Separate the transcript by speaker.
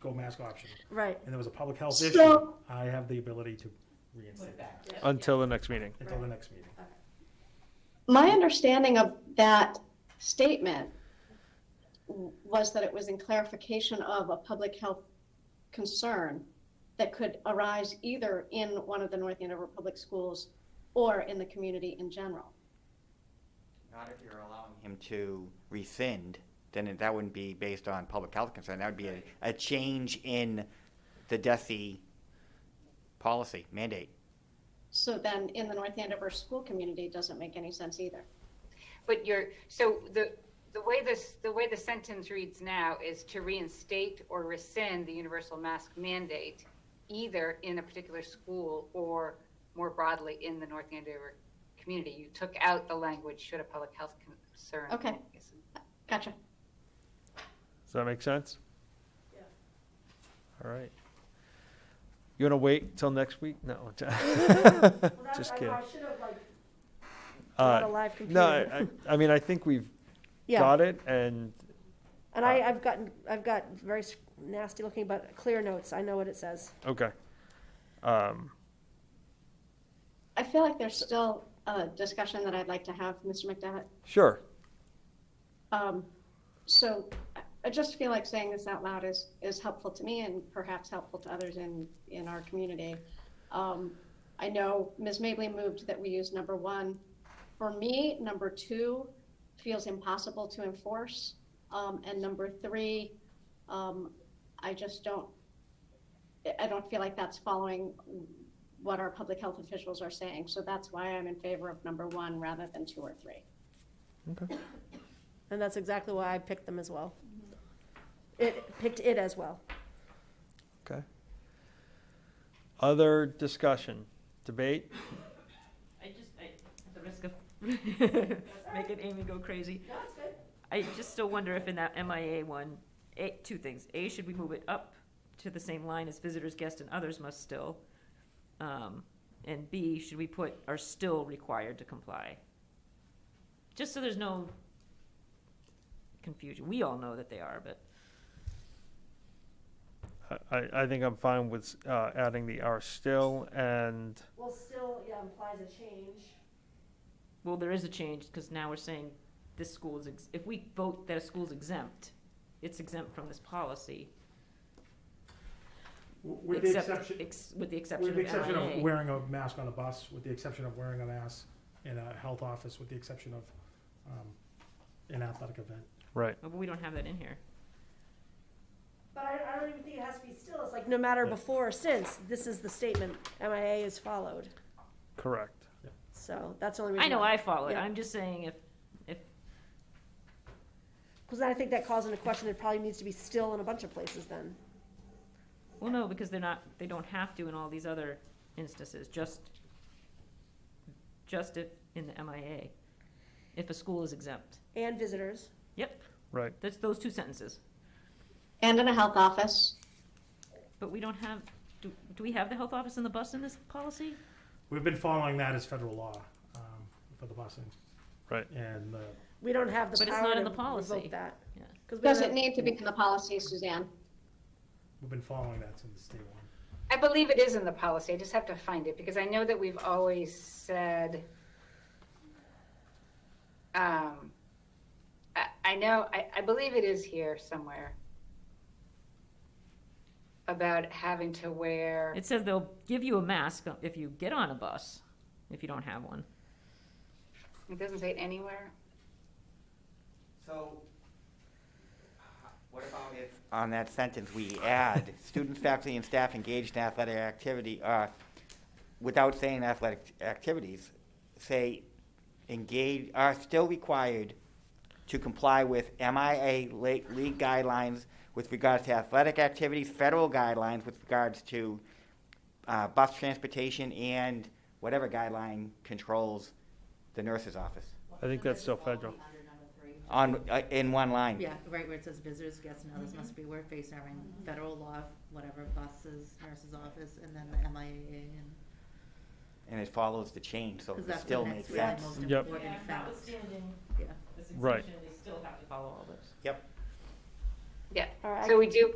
Speaker 1: go mask option,
Speaker 2: Right.
Speaker 1: and there was a public health
Speaker 2: So-
Speaker 1: issue, I have the ability to reinstate it
Speaker 3: until the next meeting.
Speaker 1: until the next meeting.
Speaker 2: My understanding of that statement w- was that it was in clarification of a public health concern that could arise either in one of the North Andover Public Schools or in the community in general.
Speaker 4: Not if you're allowing him to rescind, then it- that wouldn't be based on public health concern. That would be a, a change in the DESI policy mandate.
Speaker 2: So then in the North Andover school community doesn't make any sense either.
Speaker 5: But you're, so the, the way this, the way the sentence reads now is to reinstate or rescind the universal mask mandate, either in a particular school or more broadly in the North Andover community. You took out the language should a public health concern.
Speaker 2: Okay. Gotcha.
Speaker 3: Does that make sense? Yeah. All right. You want to wait till next week? No. Just kidding.
Speaker 6: brought
Speaker 3: Uh,
Speaker 6: a live computer.
Speaker 3: No, I, I- I mean, I think we've
Speaker 6: yeah.
Speaker 3: got it and
Speaker 6: And I, I've gotten, I've got very s- nasty looking, but clear notes. I know what it says.
Speaker 3: Okay. Um,
Speaker 2: I feel like there's still a discussion that I'd like to have, Mr. McDevitt.
Speaker 3: sure.
Speaker 2: Um, so I- I just feel like saying this out loud is, is helpful to me and perhaps helpful to others in, in our community. Um, I know Ms. Mably moved that we use number one. For me, number two feels impossible to enforce. Um, and number three, um, I just don't, I- I don't feel like that's following what our public health officials are saying. So that's why I'm in favor of number one rather than two or three.
Speaker 3: Okay.
Speaker 6: And that's exactly why I picked them as well. It, picked it as well.
Speaker 3: Okay. Other discussion, debate?
Speaker 7: I just, I, at the risk of making Amy go crazy. I just still wonder if in that MIA one, A, two things. A, should we move it up to the same line as visitors, guests, and others must still? Um, and B, should we put are still required to comply? Just so there's no confusion. We all know that they are, but
Speaker 3: I, I- I think I'm fine with uh, adding the R still and,
Speaker 6: Well, still, yeah, implies a change.
Speaker 7: Well, there is a change, because now we're saying this school is, ex- if we vote that a school's exempt, it's exempt from this policy.
Speaker 1: With the
Speaker 7: except-
Speaker 1: exception,
Speaker 7: ex- With the exception
Speaker 1: with
Speaker 7: of
Speaker 1: the exception of
Speaker 7: MIA.
Speaker 1: wearing a mask on a bus, with the exception of wearing a mask in a health office, with the exception of, um, an athletic event.
Speaker 3: right.
Speaker 7: Oh, But we don't have that in here.
Speaker 6: But I, I don't even think it has to be still. It's like no matter before or since, this is the statement MIA is followed.
Speaker 3: Correct.
Speaker 6: So that's the only reason.
Speaker 7: I know I follow it,
Speaker 6: Yeah.
Speaker 7: I'm just saying if, if,
Speaker 6: Because I think that calls into question, it probably needs to be still in a bunch of places then.
Speaker 7: well, no, because they're not, they don't have to in all these other instances, just, just if, in the MIA, if a school is exempt.
Speaker 6: And visitors.
Speaker 7: Yep,
Speaker 3: Right.
Speaker 7: that's those two sentences.
Speaker 2: And in a health office,
Speaker 7: But we don't have, do, do we have the health office and the bus in this policy?
Speaker 1: We've been following that as federal law, um, for the busing.
Speaker 3: Right.
Speaker 1: And uh, the
Speaker 6: We don't have the
Speaker 7: But it's
Speaker 6: power
Speaker 7: not
Speaker 6: to
Speaker 7: in the policy.
Speaker 6: revoke that.
Speaker 7: Yeah.
Speaker 6: 'Cause we
Speaker 2: Does
Speaker 6: don't-
Speaker 2: it need to be in the policy, Suzanne?
Speaker 1: We've been following that since day one.
Speaker 5: I believe it is in the policy. I just have to find it because I know that we've always said. Um, I, I know, I, I believe it is here somewhere. About having to wear,
Speaker 7: It says they'll give you a mask if you get on a bus, if you don't have one.
Speaker 5: it doesn't say it anywhere.
Speaker 4: So, uh, what about if? On that sentence, we add, students, faculty, and staff engaged in athletic activity, uh, without saying athletic activities, say engage, are still required to comply with MIA le- league guidelines with regards to athletic activities, federal guidelines with regards to, uh, bus transportation and whatever guideline controls the nurse's office.
Speaker 3: I think that's still federal.
Speaker 8: Under number three.
Speaker 4: On, uh, in one line.
Speaker 8: Yeah, right where it says visitors, guests, and others must be aware facing our federal law, whatever buses, nurse's office, and then the MIA and.
Speaker 4: and it follows the change, so
Speaker 8: 'cause
Speaker 4: it
Speaker 8: that's the
Speaker 4: still
Speaker 8: next
Speaker 4: makes
Speaker 8: really
Speaker 4: sense.
Speaker 8: most
Speaker 3: Yep.
Speaker 8: important fact. Yeah.
Speaker 3: Right.
Speaker 7: they still have to follow all this.
Speaker 4: Yep.
Speaker 5: Yeah.
Speaker 6: All right.
Speaker 5: So we do,